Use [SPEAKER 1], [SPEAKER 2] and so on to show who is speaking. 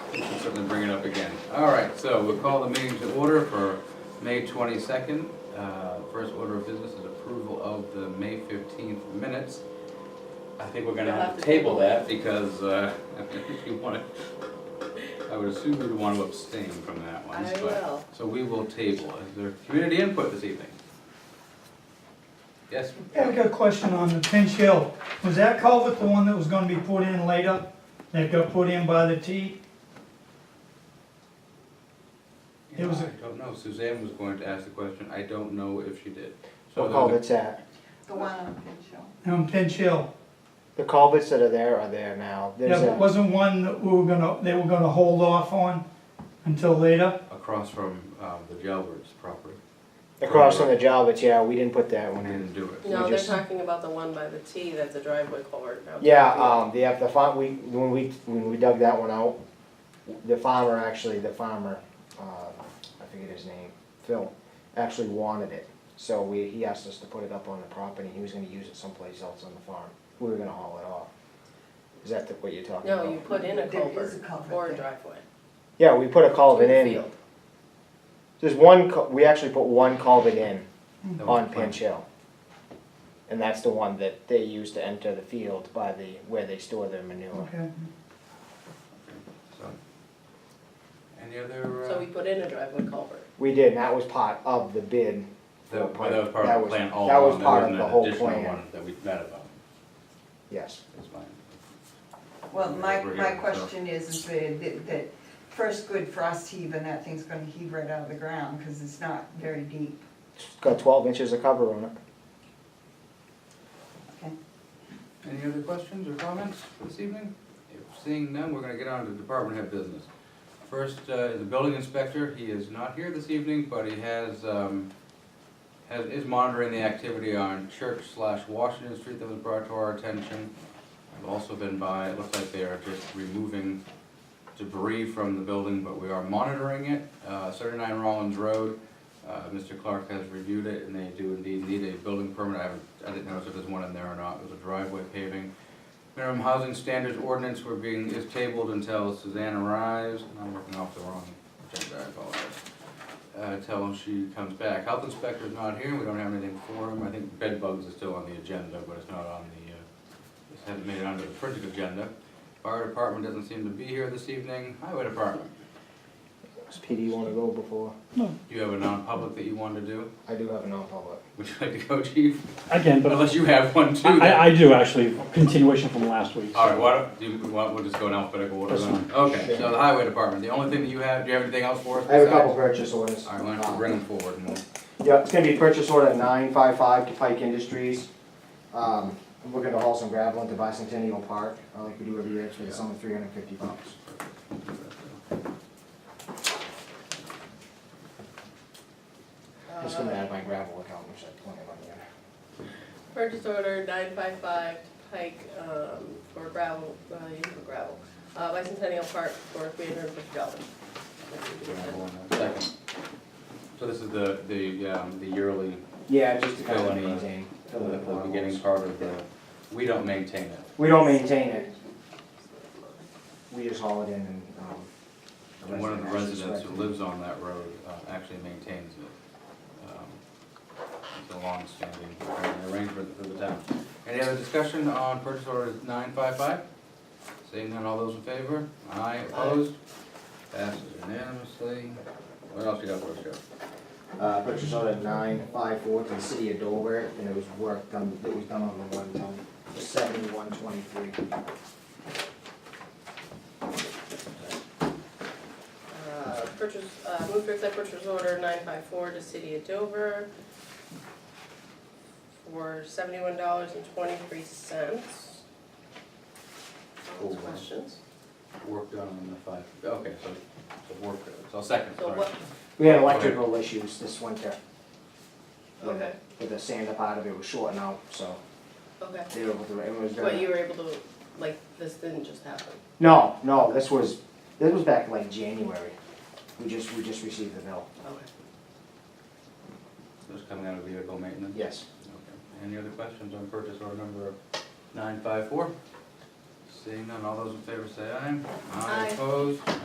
[SPEAKER 1] I'll certainly bring it up again. All right, so we'll call the meeting to order for May 22nd. Uh, First order of business is approval of the May 15th minutes. I think we're gonna
[SPEAKER 2] You'll
[SPEAKER 1] have to table that because uh, if you want to, I would assume you'd want to abstain from that one.
[SPEAKER 2] I
[SPEAKER 1] but-
[SPEAKER 2] will.
[SPEAKER 1] So we will table. Is there community input this evening? Yes?
[SPEAKER 3] Yeah, I got a question on the Pinch Hill. Was that culvert the one that was gonna be put in later? That got put in by the T? It was a-
[SPEAKER 1] I don't know, Suzanne was going to ask the question, I don't know if she did. So
[SPEAKER 4] What
[SPEAKER 1] the-
[SPEAKER 4] culvert's that?
[SPEAKER 2] The one
[SPEAKER 5] Uh,
[SPEAKER 2] on Pinch Hill.
[SPEAKER 3] On um, Pinch Hill?
[SPEAKER 4] The culverts that are there are there now.
[SPEAKER 3] Yeah,
[SPEAKER 4] There's
[SPEAKER 3] but
[SPEAKER 4] a,
[SPEAKER 3] wasn't one that we were gonna, they were gonna hold off on until later?
[SPEAKER 1] Across from uh, the jailbird's property,
[SPEAKER 4] across from the Jalberts, yeah, we didn't put that
[SPEAKER 1] we
[SPEAKER 4] one in.
[SPEAKER 1] didn't do it.
[SPEAKER 2] No,
[SPEAKER 4] We
[SPEAKER 2] they're
[SPEAKER 4] just-
[SPEAKER 2] talking about the one by the T, that's a driveway culvert. out there.
[SPEAKER 4] Yeah, um, the, the farm, we, when we, when we dug that one out, the farmer actually, the farmer, uh, I forget his name, Phil, actually wanted it. So we, he asked us to put it up on the property, he was gonna use it someplace else on the farm. We were gonna haul it off. Is that the- what you're talking about?
[SPEAKER 2] No, you put in a
[SPEAKER 5] There is a
[SPEAKER 2] culvert
[SPEAKER 5] culvert
[SPEAKER 2] or a
[SPEAKER 5] there.
[SPEAKER 2] driveway.
[SPEAKER 4] Yeah, we put a culvert
[SPEAKER 2] To the
[SPEAKER 4] in.
[SPEAKER 2] field.
[SPEAKER 4] There's one, cul- we actually put one culvert in.
[SPEAKER 1] That was
[SPEAKER 4] on
[SPEAKER 1] the plan.
[SPEAKER 4] Pinch Hill. And that's the one that they use to enter the field by the, where they store their manure.
[SPEAKER 3] Okay.
[SPEAKER 1] So, Any other,
[SPEAKER 2] So
[SPEAKER 1] uh,
[SPEAKER 2] we put in a driveway culvert.
[SPEAKER 4] We did, and that was part of the bid.
[SPEAKER 1] that well, that was part of the plan all
[SPEAKER 4] That was
[SPEAKER 1] along, that
[SPEAKER 4] part
[SPEAKER 1] wasn't
[SPEAKER 4] of the
[SPEAKER 1] an
[SPEAKER 4] whole
[SPEAKER 1] additional
[SPEAKER 4] plan,
[SPEAKER 1] one that we met about,
[SPEAKER 4] yes.
[SPEAKER 1] that's fine.
[SPEAKER 5] Well, my,
[SPEAKER 1] We're
[SPEAKER 5] my
[SPEAKER 1] here, so-
[SPEAKER 5] question is, is that, that- that first good frost heave and that thing's gonna heave right out of the ground, because it's not very deep,
[SPEAKER 4] It's Got twelve inches of cover on it.
[SPEAKER 5] okay?
[SPEAKER 1] Any other questions or comments for this evening? If seeing none, we're gonna get on to department head business. First, uh, is the building inspector, he is not here this evening, but he has, um, has, is monitoring the activity on Church slash Washington Street that was brought to our attention. I've also been by, it looks like they are just removing debris from the building, but we are monitoring it. Uh, thirty-nine Rollins Road, uh, Mr. Clark has reviewed it, and they do indeed need a building permit. I haven't, I didn't notice if there's one in there or not, it was a driveway paving. Minimum housing standards ordinance were being, is tabled until Suzanne arrives, I'm working off the wrong agenda, I apologize. Uh, Until she comes back. Health inspector's not here, we don't have anything for him. I think bed bugs is still on the agenda, but it's not on the, uh, just haven't made it onto the printed agenda. Fire department doesn't seem to be here this evening. Highway department,
[SPEAKER 4] Does PD wanna go before?
[SPEAKER 1] do you have a non-public that you want to do?
[SPEAKER 4] I do have a non-public.
[SPEAKER 1] Would you like to go, chief?
[SPEAKER 6] Again, but
[SPEAKER 1] Unless you have one too.
[SPEAKER 6] I,
[SPEAKER 1] then-
[SPEAKER 6] I do actually, continuation from last week. so-
[SPEAKER 1] All right, why don't, do you, why, we'll just go in alphabetical order
[SPEAKER 6] That's
[SPEAKER 1] then.
[SPEAKER 6] fine.
[SPEAKER 1] Okay, so the highway department, the only thing that you have, do you have anything else for us?
[SPEAKER 4] I have a
[SPEAKER 1] besides-
[SPEAKER 4] couple purchase orders.
[SPEAKER 1] All right, why don't you bring them forward and we'll,
[SPEAKER 4] Yeah, it's gonna be purchase order nine five five to Pike Industries. Um, I'm looking to haul some gravel into Bicentennial Park, uh, like we do every year, it's for the sum of three hundred and fifty bucks. Just gonna add my gravel account, which I have plenty of money in.
[SPEAKER 2] Purchase order nine five five Pike, um, for gravel, uh, you can put gravel, uh, Bicentennial Park for three hundred and fifty dollars.
[SPEAKER 1] second. So this is the, the, um, the yearly,
[SPEAKER 4] Yeah, just to kind
[SPEAKER 1] Fill
[SPEAKER 4] of
[SPEAKER 1] in the-
[SPEAKER 4] maintain.
[SPEAKER 1] the
[SPEAKER 4] fill in the
[SPEAKER 1] the beginning
[SPEAKER 4] potholes.
[SPEAKER 1] part of the, we don't maintain it.
[SPEAKER 4] We don't maintain it. We just haul it in and, um.
[SPEAKER 1] And one of the
[SPEAKER 4] resident actually
[SPEAKER 1] residents who
[SPEAKER 4] inspects
[SPEAKER 1] lives on that road uh, actually maintains it. Um, It's a long-standing arrangement for the town. Any other discussion on purchase order nine five five? Seeing none, all those in favor? Aye, opposed? Passes unanimously. What else you got for us, Joe?
[SPEAKER 4] it. Uh, purchase order nine five four to the city of Dover, and it was work done, it was done on the one ton, seventy-one twenty-three.
[SPEAKER 2] Uh, Purchase, uh, move to accept purchase order nine five four to City of Dover for seventy-one dollars and twenty-three cents.
[SPEAKER 1] Cool.
[SPEAKER 2] Questions?
[SPEAKER 1] Work done on the five. Okay, so, so work, so second,
[SPEAKER 2] So
[SPEAKER 1] sorry.
[SPEAKER 2] what,
[SPEAKER 4] We had electrical issues this winter. with
[SPEAKER 2] Okay.
[SPEAKER 4] the- With the sander part of it was shorting out, so
[SPEAKER 2] okay,
[SPEAKER 4] they were able to, it was.
[SPEAKER 2] what
[SPEAKER 4] very-
[SPEAKER 2] you were able to, like, this didn't just happen.
[SPEAKER 4] No, no, this was, this was back like January. We just, we just received the bill.
[SPEAKER 2] Okay.
[SPEAKER 1] This is coming out of vehicle maintenance?
[SPEAKER 4] Yes.
[SPEAKER 1] Okay. Any other questions on purchase order number nine five four? Seeing none, all those in favor say aye.
[SPEAKER 2] Aye.
[SPEAKER 1] Opposed?